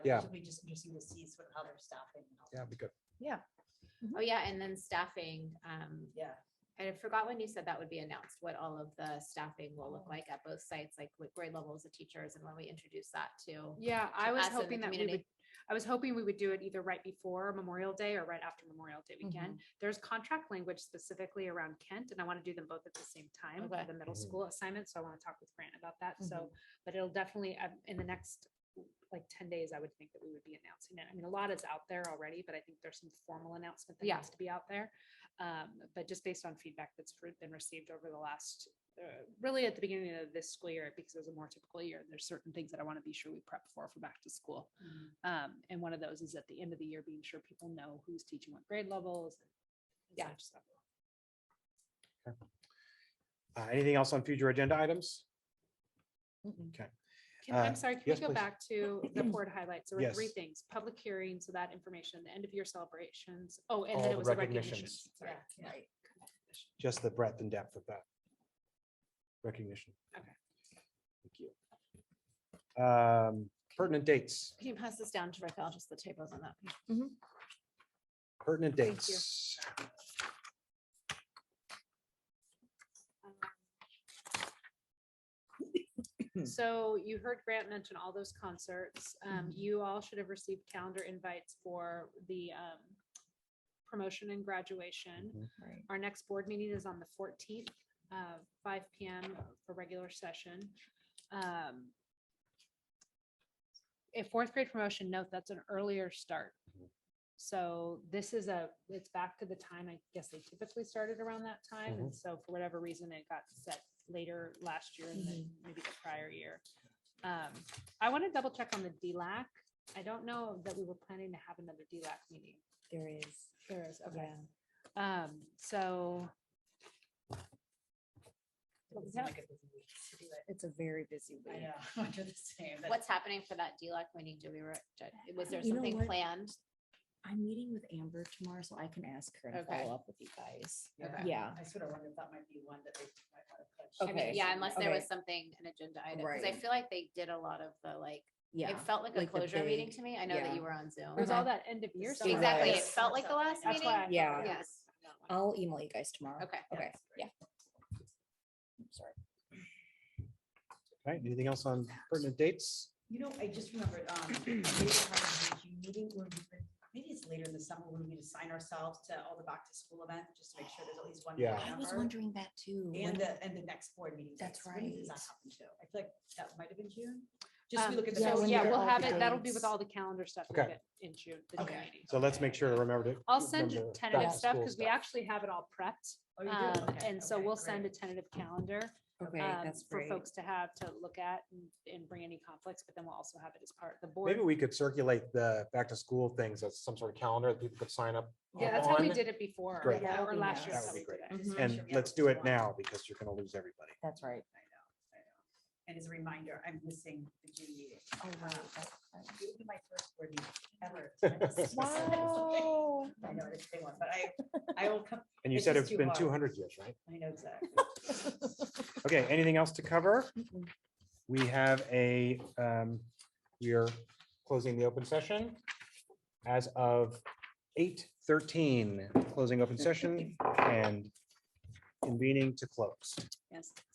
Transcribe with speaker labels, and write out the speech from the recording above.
Speaker 1: Yeah.
Speaker 2: It'll be just interesting to see sort of how they're staffing. and all that.
Speaker 1: Yeah, because
Speaker 3: Oh, yeah, and then staffing, um,
Speaker 2: Yeah.
Speaker 3: I forgot when you said that would be announced, what all of the staffing will look like at both sites, like what grade levels of teachers and when we introduce that to.
Speaker 4: Yeah, I was
Speaker 3: us and the
Speaker 4: hoping that we
Speaker 3: community.
Speaker 4: would, I was hoping we would do it either right before Memorial Day or right after Memorial Day weekend.
Speaker 3: Mm-hmm.
Speaker 4: There's contract language specifically around Kent, and I want to do them both at the same time
Speaker 3: Okay. Mm-hmm.
Speaker 4: for the middle
Speaker 1: Mhm.
Speaker 4: school assignment, so I want to talk with Grant about that, so, but it'll definitely, uh, in the next like ten days, I would think that we would be announcing it. I mean, a lot is out there already, but I think there's some formal announcement that
Speaker 3: Yeah.
Speaker 4: needs to be out there. Um, but just based on feedback that's re- been received over the last, uh, really at the beginning of this school year, because it was a more typical year, there's certain things that I want to be sure we prep for for back to school.
Speaker 2: Mhm.
Speaker 3: Mm-hmm.
Speaker 4: Um, and one of those is at the end of the year, being sure people know who's teaching what grade levels. and
Speaker 3: Yeah.
Speaker 4: such stuff.
Speaker 1: Uh, anything else on future agenda items?
Speaker 2: Mm-hmm.
Speaker 4: Can, I'm
Speaker 1: Uh,
Speaker 4: sorry, can
Speaker 1: yes,
Speaker 4: we go
Speaker 1: please.
Speaker 4: back to the board highlights? There were three
Speaker 1: Yes.
Speaker 4: things, public hearing, so that information, the end of year celebrations. Oh, and
Speaker 1: All
Speaker 4: then
Speaker 1: the
Speaker 4: it was the
Speaker 1: recognitions.
Speaker 4: recognitions. Sorry.
Speaker 2: Yeah,
Speaker 4: Yeah.
Speaker 2: Right.
Speaker 1: Just the breadth and depth of that recognition.
Speaker 4: Okay.
Speaker 1: Thank you. Um, pertinent dates,
Speaker 3: Can you pass this down to Rick? I'll just the typos on that.
Speaker 1: pertinent
Speaker 4: Thank you.
Speaker 1: dates.
Speaker 4: So you heard Grant mention all those concerts. Um,
Speaker 1: Mm-hmm.
Speaker 4: you all should have received calendar invites for the, um, promotion and graduation.
Speaker 1: Mhm.
Speaker 3: Right.
Speaker 4: Our next board meeting is on the fourteenth, uh, five P M for regular session. Um. A fourth grade promotion, note, that's an earlier start.
Speaker 1: Mhm.
Speaker 4: So this is a, it's back to the time, I guess they typically started around that time, and so for whatever reason, it got set later last year and then maybe the prior year. Um, I want to double check on the DLAC. I don't know that we were planning to have another DLAC meeting.
Speaker 2: There is.
Speaker 4: There is, okay.
Speaker 2: Yeah.
Speaker 4: Um, so
Speaker 2: It was like a busy week to do it. It's a very busy week. I know, I'm the same. but-
Speaker 3: What's happening for that E DLAC meeting? Do we, re- do- was there
Speaker 5: You know
Speaker 3: something
Speaker 5: what?
Speaker 3: planned?
Speaker 5: I'm meeting with Amber tomorrow, so I can ask her and
Speaker 3: Okay.
Speaker 5: follow up with you guys.
Speaker 2: Yeah.
Speaker 5: Yeah.
Speaker 2: I sort of wondered if that might be one that they might want to
Speaker 3: I
Speaker 2: push.
Speaker 3: mean,
Speaker 5: Okay.
Speaker 3: Yeah, unless there was
Speaker 5: Okay.
Speaker 3: something, an agenda item, because I
Speaker 5: Right.
Speaker 3: feel like they did a lot of the like,
Speaker 5: Yeah.
Speaker 3: it felt like a
Speaker 5: like the
Speaker 3: closure meeting
Speaker 5: big-
Speaker 3: to me. I know that
Speaker 5: yeah.
Speaker 3: you were on Zoom.
Speaker 4: there's all that end of year. stuff.
Speaker 3: Exactly. It
Speaker 5: Yes.
Speaker 3: felt like the last
Speaker 4: That's
Speaker 3: meeting.
Speaker 4: why. I thought
Speaker 5: Yeah.
Speaker 4: that
Speaker 3: Yes.
Speaker 4: was-
Speaker 5: I'll email you guys tomorrow.
Speaker 3: Okay.
Speaker 5: Okay, yeah. I'm sorry.
Speaker 1: Right, anything else on pertinent dates?
Speaker 2: You know, I just remembered, um, maybe have a meeting, where we could- maybe it's later in the summer, when we assign ourselves to all the back to school events, just to make sure there's at least one. board
Speaker 1: Yeah.
Speaker 5: I was
Speaker 2: member,
Speaker 5: wondering that too. when-
Speaker 2: And the, and the next board meeting.
Speaker 5: That's
Speaker 2: dates. When Does that
Speaker 5: right.
Speaker 2: happen too? I feel like that might have been June. Just we
Speaker 4: Um,
Speaker 2: look at the.
Speaker 5: yeah,
Speaker 2: next
Speaker 4: So
Speaker 5: when
Speaker 4: yeah,
Speaker 2: year.
Speaker 5: they're
Speaker 4: we'll
Speaker 5: all
Speaker 4: have it.
Speaker 5: the
Speaker 4: That'll be with
Speaker 5: dates.
Speaker 4: all the calendar stuff we'll
Speaker 1: Okay.
Speaker 4: get in June. the June
Speaker 2: Okay.
Speaker 4: meeting.
Speaker 1: So let's make sure to remember to.
Speaker 4: I'll send you
Speaker 1: remember
Speaker 4: tentative
Speaker 1: back to
Speaker 4: stuff
Speaker 1: school
Speaker 4: because we
Speaker 1: stuff.
Speaker 4: actually have it all prepped.
Speaker 2: Oh, you do?
Speaker 4: um,
Speaker 2: Okay,
Speaker 4: And so
Speaker 2: okay,
Speaker 4: we'll
Speaker 2: great.
Speaker 4: send a tentative calendar.
Speaker 5: Okay,
Speaker 4: um,
Speaker 5: that's
Speaker 4: for
Speaker 5: great.
Speaker 4: folks to have to look at and, and bring any conflicts, but then we'll also have it as part of the board.
Speaker 1: Maybe we could circulate the back to school things as some sort of calendar that people could sign up.
Speaker 4: Yeah, that's how we
Speaker 1: on.
Speaker 4: did it before,
Speaker 1: Great.
Speaker 2: Yeah,
Speaker 4: yeah, or
Speaker 5: that'd be
Speaker 4: last year.
Speaker 1: nice.
Speaker 4: that's how
Speaker 1: That would
Speaker 4: we
Speaker 1: be
Speaker 4: did it.
Speaker 2: Just make
Speaker 1: And
Speaker 2: sure we have
Speaker 1: let's
Speaker 2: at
Speaker 1: do
Speaker 2: least
Speaker 1: it
Speaker 2: one.
Speaker 1: now because you're gonna lose everybody.
Speaker 5: Mm-hmm. That's right.
Speaker 2: I know, I know. And as a reminder, I'm missing the June meeting.
Speaker 5: Oh, wow. that's-
Speaker 2: It would be my first board meeting ever. if I missed it. I know, it's a big one, but I, I will come,
Speaker 1: And you
Speaker 2: It's
Speaker 1: said
Speaker 2: just
Speaker 1: it's
Speaker 2: too
Speaker 1: been
Speaker 2: hard.
Speaker 1: two hundred years, right?
Speaker 2: I know exactly.
Speaker 1: Okay, anything else to cover?
Speaker 5: Mm-mm.
Speaker 1: We have a, um, we are closing the open session as of eight thirteen, closing open session and convening to close.
Speaker 4: Yes.